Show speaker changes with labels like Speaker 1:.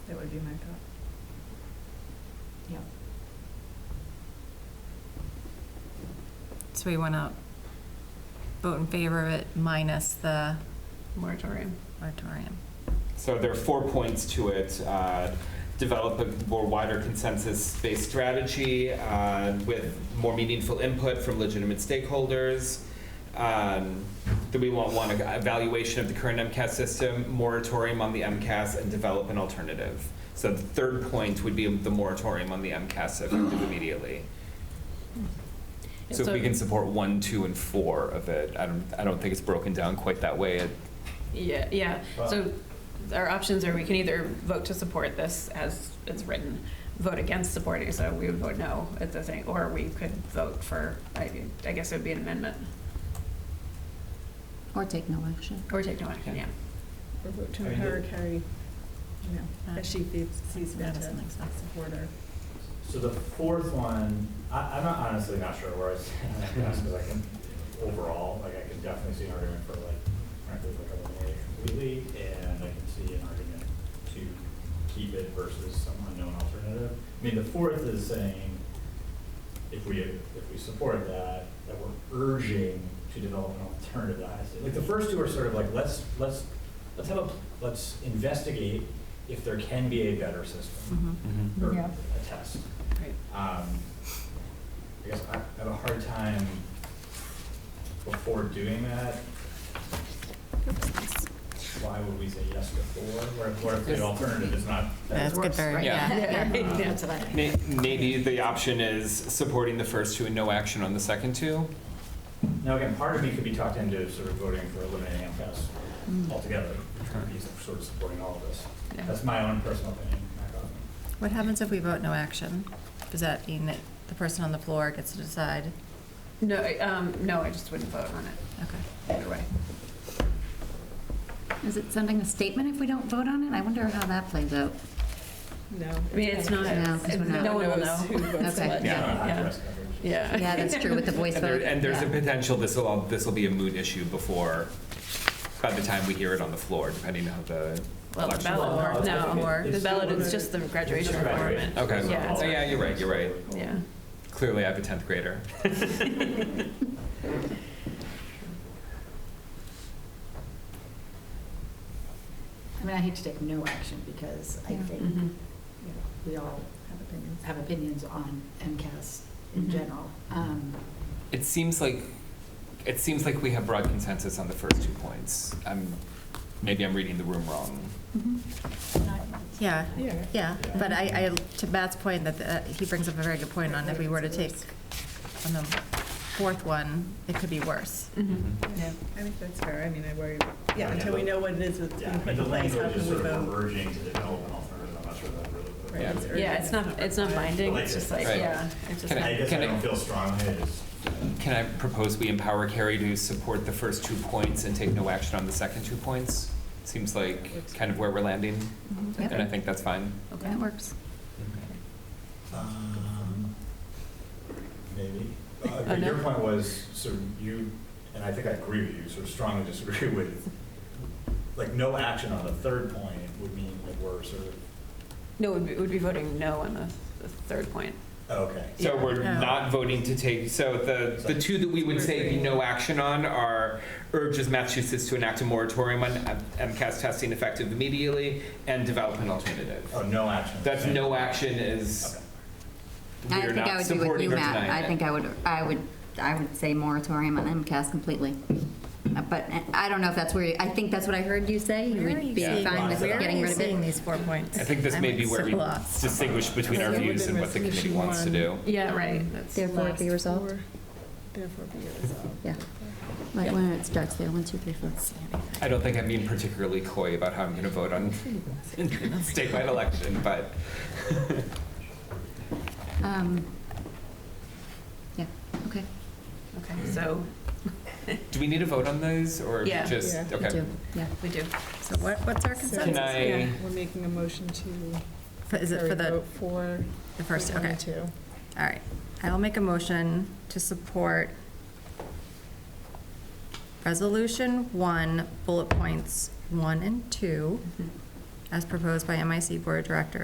Speaker 1: would be my thought. Yeah.
Speaker 2: So we want to vote in favor of it minus the
Speaker 3: moratorium.
Speaker 2: moratorium.
Speaker 4: So there are four points to it. Uh, Develop a more wider consensus-based strategy uh, with more meaningful input from legitimate stakeholders. Um, That we want one evaluation of the current MCAS system, moratorium on the MCAS, and develop an alternative. So the third point would be the moratorium on the MCAS effective immediately. So if we can support one, two, and four of it, I don't, I don't think it's broken down quite that way. It-
Speaker 3: Yeah, yeah. So our options are we can either vote to support this as it's written, vote against supporting, so we would vote no at the thing, or we could vote for, I, I guess it would be an amendment,
Speaker 5: Or take no action.
Speaker 3: or take no action, yeah.
Speaker 1: Or vote to
Speaker 6: I mean,
Speaker 1: empower
Speaker 6: the-
Speaker 1: Carrie, you know, as she feels- sees fit to
Speaker 2: Madison thinks that's-
Speaker 1: support her.
Speaker 6: So the fourth one, I, I'm not honestly not sure where I stand on this, because I can, overall, like, I can definitely see an argument for like, frankly, like eliminating it completely, and I can see an argument to keep it versus some unknown alternative. I mean, the fourth is saying, if we, if we support that, that we're urging to develop an alternative to high stakes. Like, the first two are sort of like, let's, let's, let's have a, let's investigate if there can be a better system,
Speaker 2: Mm-hmm.
Speaker 6: or
Speaker 5: Yeah.
Speaker 6: a test.
Speaker 3: Right.
Speaker 6: Um, I guess I I have a hard time before doing that. Why would we say yes before? What if, what if the alternative is not?
Speaker 2: That's good, very, yeah.
Speaker 3: Yeah.
Speaker 4: May- Maybe the option is supporting the first two and no action on the second two?
Speaker 6: Now, again, part of me could be talked into sort of voting for eliminating MCAS altogether, trying to be sort of supporting all of this.
Speaker 3: Mm. Yeah.
Speaker 6: That's my own personal opinion. not government.
Speaker 2: What happens if we vote no action? Does that mean that the person on the floor gets to decide?
Speaker 3: No, I- um, no, I just wouldn't vote on it,
Speaker 2: Okay.
Speaker 3: either way.
Speaker 5: Is it sending a statement if we don't vote on it? I wonder how that plays out.
Speaker 1: No.
Speaker 3: I mean, it's not,
Speaker 5: No, 'cause we're not-
Speaker 3: no one will
Speaker 1: knows
Speaker 3: know.
Speaker 1: who votes
Speaker 5: Okay.
Speaker 3: what.
Speaker 6: I don't know how to
Speaker 3: Yeah,
Speaker 6: address coverage.
Speaker 3: yeah.
Speaker 5: Yeah, that's true with the voice
Speaker 4: And there-
Speaker 5: vote.
Speaker 4: and there's a
Speaker 5: Yeah.
Speaker 4: potential this will, all this will be a moot issue before, by the time we hear it on the floor, depending on how the
Speaker 3: Well, the
Speaker 4: election.
Speaker 6: Well,
Speaker 3: ballot,
Speaker 6: no,
Speaker 3: no,
Speaker 6: it's-
Speaker 3: or
Speaker 6: it's
Speaker 3: the ballot
Speaker 6: still-
Speaker 3: is just the graduation
Speaker 6: Just graduate.
Speaker 3: requirement.
Speaker 4: Okay.
Speaker 3: Yeah,
Speaker 4: Oh,
Speaker 3: it's-
Speaker 4: yeah, you're right, you're right.
Speaker 3: yeah.
Speaker 4: Clearly, I have a 10th grader.
Speaker 7: I mean, I hate to take no action because I
Speaker 5: Yeah. Mm-hmm.
Speaker 7: think, you
Speaker 3: Mhm.
Speaker 7: know, we all
Speaker 1: Have opinions.
Speaker 7: have opinions on MCAS in
Speaker 5: Mm-hmm.
Speaker 3: Mhm.
Speaker 7: general. Um,
Speaker 4: It seems like, it seems like we have broad consensus on the first two points. I'm, maybe I'm reading the room wrong.
Speaker 5: Mm-hmm.
Speaker 2: Yeah,
Speaker 1: Yeah.
Speaker 2: yeah, but I, I, to Matt's point, that, uh, he brings up a very good point on if we were to take on the fourth one, it could be worse.
Speaker 3: Mhm.
Speaker 1: Yeah, I think that's fair. I mean, I worry, yeah, until we know what it is that's
Speaker 6: Yeah,
Speaker 1: being
Speaker 6: I mean,
Speaker 1: put
Speaker 6: the
Speaker 1: in place, how
Speaker 6: language is
Speaker 1: can we
Speaker 6: sort of
Speaker 1: vote?
Speaker 6: urging to develop an alternative, I'm not sure that really.
Speaker 1: Right,
Speaker 4: Yeah.
Speaker 1: urgent,
Speaker 3: Yeah, it's not, it's not binding, it's just like,
Speaker 4: Right.
Speaker 3: yeah. it's just-
Speaker 4: Can
Speaker 6: I guess I
Speaker 4: I-
Speaker 6: don't feel strongly, I just,
Speaker 4: Can I propose we empower Carrie to support the first two points and take no action on the second two points? Seems like kind of where we're landing,
Speaker 2: Mm-hmm.
Speaker 5: Yep.
Speaker 4: and I think that's fine.
Speaker 5: That works.
Speaker 6: um, maybe. Uh,
Speaker 3: Oh,
Speaker 6: But your
Speaker 3: no.
Speaker 6: point was, sort of you, and I think I agree with you, sort of strongly disagree with, like, no action on the third point would mean that we're sort of,
Speaker 3: No, it would be- it would be voting no on the, the third point.
Speaker 6: oh, okay.
Speaker 4: So we're
Speaker 2: Yeah.
Speaker 4: not voting to take, so the, the two that we would say no action on are urges Massachusetts to enact a moratorium on M- MCAS testing effective immediately and develop an alternative.
Speaker 6: Oh, no action.
Speaker 4: That's no action is,
Speaker 6: Okay.
Speaker 5: I
Speaker 4: we're
Speaker 5: think I
Speaker 4: not
Speaker 5: would be with you,
Speaker 4: supporting or
Speaker 5: Matt.
Speaker 4: denying
Speaker 5: I
Speaker 4: it.
Speaker 5: think I would, I would, I would say moratorium on MCAS completely. Uh, But I don't know if that's where, you- I think that's what I heard you say. You would be
Speaker 6: seeing-
Speaker 5: fine with
Speaker 6: Where are
Speaker 5: getting
Speaker 6: you
Speaker 5: rid of it.
Speaker 2: these four points?
Speaker 4: I think this may be where we distinguish between our
Speaker 1: Yeah,
Speaker 4: views and what the
Speaker 1: resolution
Speaker 4: committee wants to
Speaker 1: one.
Speaker 4: do.
Speaker 3: Yeah, right. That's
Speaker 5: Therefore, it
Speaker 3: last.
Speaker 5: be resolved.
Speaker 1: Mm-hmm. Therefore be it resolved.
Speaker 5: Yeah. Like when it starts there, one, two, three, four.
Speaker 4: I don't think I'm being particularly coy about how I'm going to vote on statewide election, but
Speaker 5: Um, Yeah, okay.
Speaker 3: Okay, so,
Speaker 4: do we need to vote on those or
Speaker 3: Yeah.
Speaker 4: just,
Speaker 1: Yeah.
Speaker 5: we
Speaker 4: okay.
Speaker 5: do, Yeah.
Speaker 3: we do.
Speaker 2: So what, what's our
Speaker 4: Can
Speaker 2: consensus?
Speaker 4: I,
Speaker 1: We're making a motion to.
Speaker 2: Is it
Speaker 1: Carrie
Speaker 2: for the,
Speaker 1: vote for.
Speaker 2: the first,
Speaker 1: one
Speaker 2: okay,
Speaker 1: and two.
Speaker 2: all right. I'll make a motion to support Resolution One, bullet points one and two, as proposed by MIC Board Director